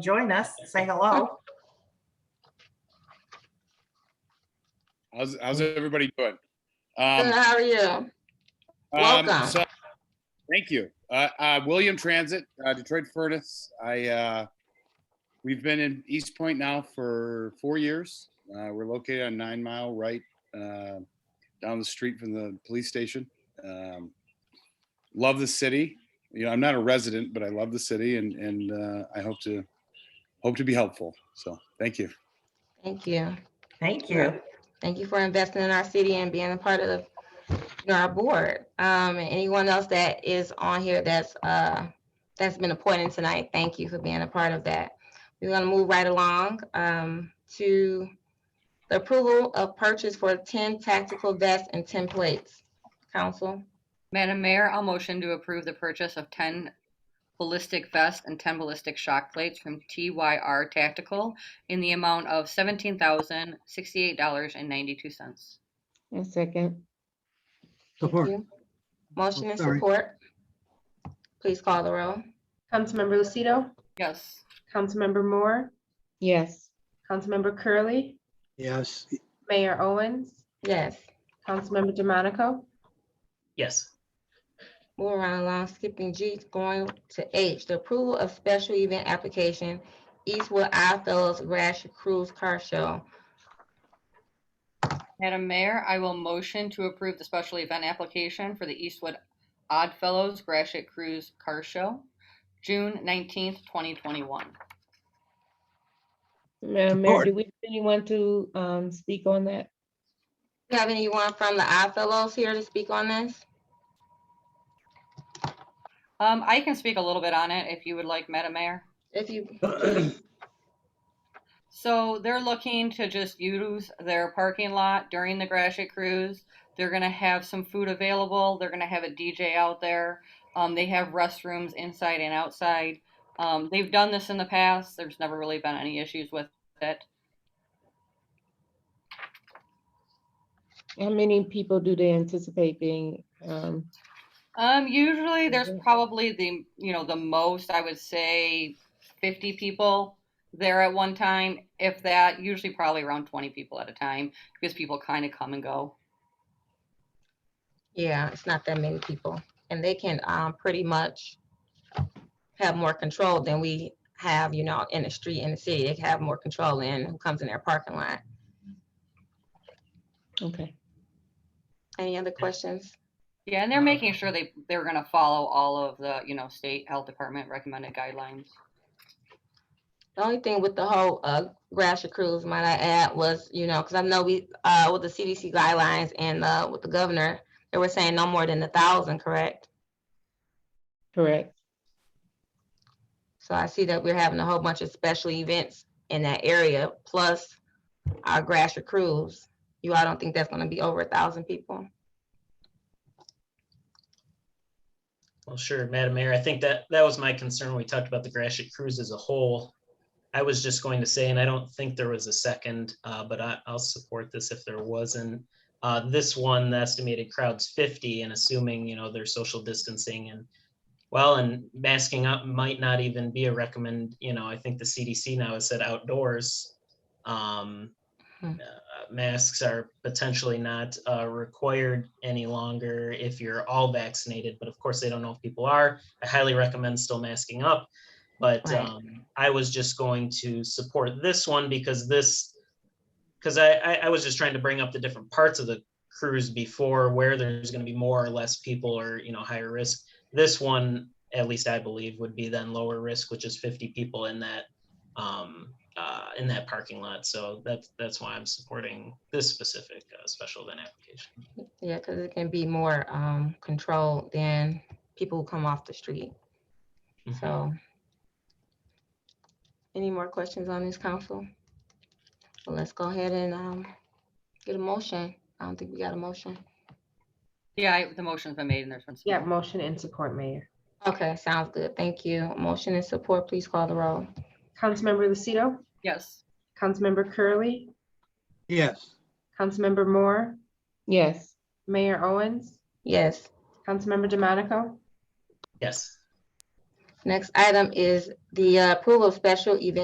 join us, say hello. How's, how's everybody doing? Um, Good, how are you? um, welcome. so- Thank you. Uh, uh, William Transit, uh, Detroit Furnace. I, uh, we've been in East Point now for four years. Uh, we're located on Nine Mile Right, uh, down the street from the police station. Um, love the city. You know, I'm not a resident, but I love the city and, and, uh, I hope to, hope to be helpful. So, thank you. Thank you. Thank you. Thank you for investing in our city and being a part of you know, our board. Um, and anyone else that is on here that's, uh, that's been appointed tonight, thank you for being a part of that. We're gonna move right along, um, to the approval of purchase for ten tactical vests and ten plates. Council, Madam Mayor, I'll motion to approve the purchase of 10 ballistic vests and 10 ballistic shock plates from TYR Tactical in the amount of $17,068.92. A second. thank Support, you. Motion and Sorry. support. Please call the roll. Councilmember Lucido, Yes. Councilmember Moore, Yes. Councilmember Curley, yes, Mayor Owens, Yes. Councilmember DeMonico, Yes, Move around along, skipping G, going to H, the approval of special event application, Eastwood I Fellows Rash Cruise Car Show. Madam Mayor, I will motion to approve the special event application for the Eastwood Oddfellows Gratiot Cruise Car Show, June 19th, 2021. Madam Mayor, Support. do we, have anyone to um speak on that? Do you have anyone from the I Fellows here to speak on this? Um, I can speak a little bit on it if you would like, Madam Mayor. If you, So they're looking to just use their parking lot during the Gratiot cruise. They're gonna have some food available. They're gonna have a DJ out there. Um, they have restrooms inside and outside. Um, they've done this in the past. There's never really been any issues with it. How many people do they anticipate being um Um, usually there's Mhm. probably the, you know, the most, I would say 50 people there at one time, if that, usually probably around 20 people at a time because people kind of come and go. yeah, it's not that many people, and they can, um, pretty much have more control than we have, you know, in the street, in the city, they can have more control in who comes in their parking lot. okay. Any other questions? Yeah, and they're Uh, making sure they, they're gonna follow all of the, you know, state health department recommended guidelines. The only thing with the whole uh Gratiot cruise, might I add, was, you know, because I know we uh with the CDC guidelines and uh with the governor, they were saying no more than a thousand, correct? Correct. So I see that we're having a whole bunch of special events in that area, plus our Gratiot cruise. You all don't think that's gonna be over a thousand people? well, sure, Madam Mayor. I think that that was my concern. when We talked about the Gratiot Cruise as a whole. I was just going to say, and I don't think there was a second, uh, but I, I'll support this if there wasn't. Uh, this one, the estimated crowd's fifty and assuming, you know, their social distancing and well, and masking up might not even be a recommend, you know, I think the CDC now has said outdoors. Um, Hmm. uh, masks are potentially not uh, required any longer if you're all vaccinated, but of course they don't know if people are. I highly recommend still masking up. But Right. um, I was just going to support this one because this, because I, I, I was just trying to bring up the different parts of the cruise before where there's going to be more or less people or, you know, higher risk. This one, at least I believe, would be then lower risk, which is 50 people in that um, uh, in that parking lot. So that's that's why I'm supporting this specific uh, special event application. Yeah, because it can be more um controlled than people who come off the street, Mhm. so. Any more questions on this council? Well, let's go ahead and um get a motion. I don't think we got a motion. Yeah, I- the motion's been made and there's been. yeah, support. motion and support, Mayor. Okay, sounds good. Thank you. Motion and support, please call the roll. Councilmember Lucido, Yes. Councilmember Curley, yes, Councilmember Moore, Yes. Mayor Owens, Yes, Councilmember DeMonico, Yes. Next item is the uh, approval of special event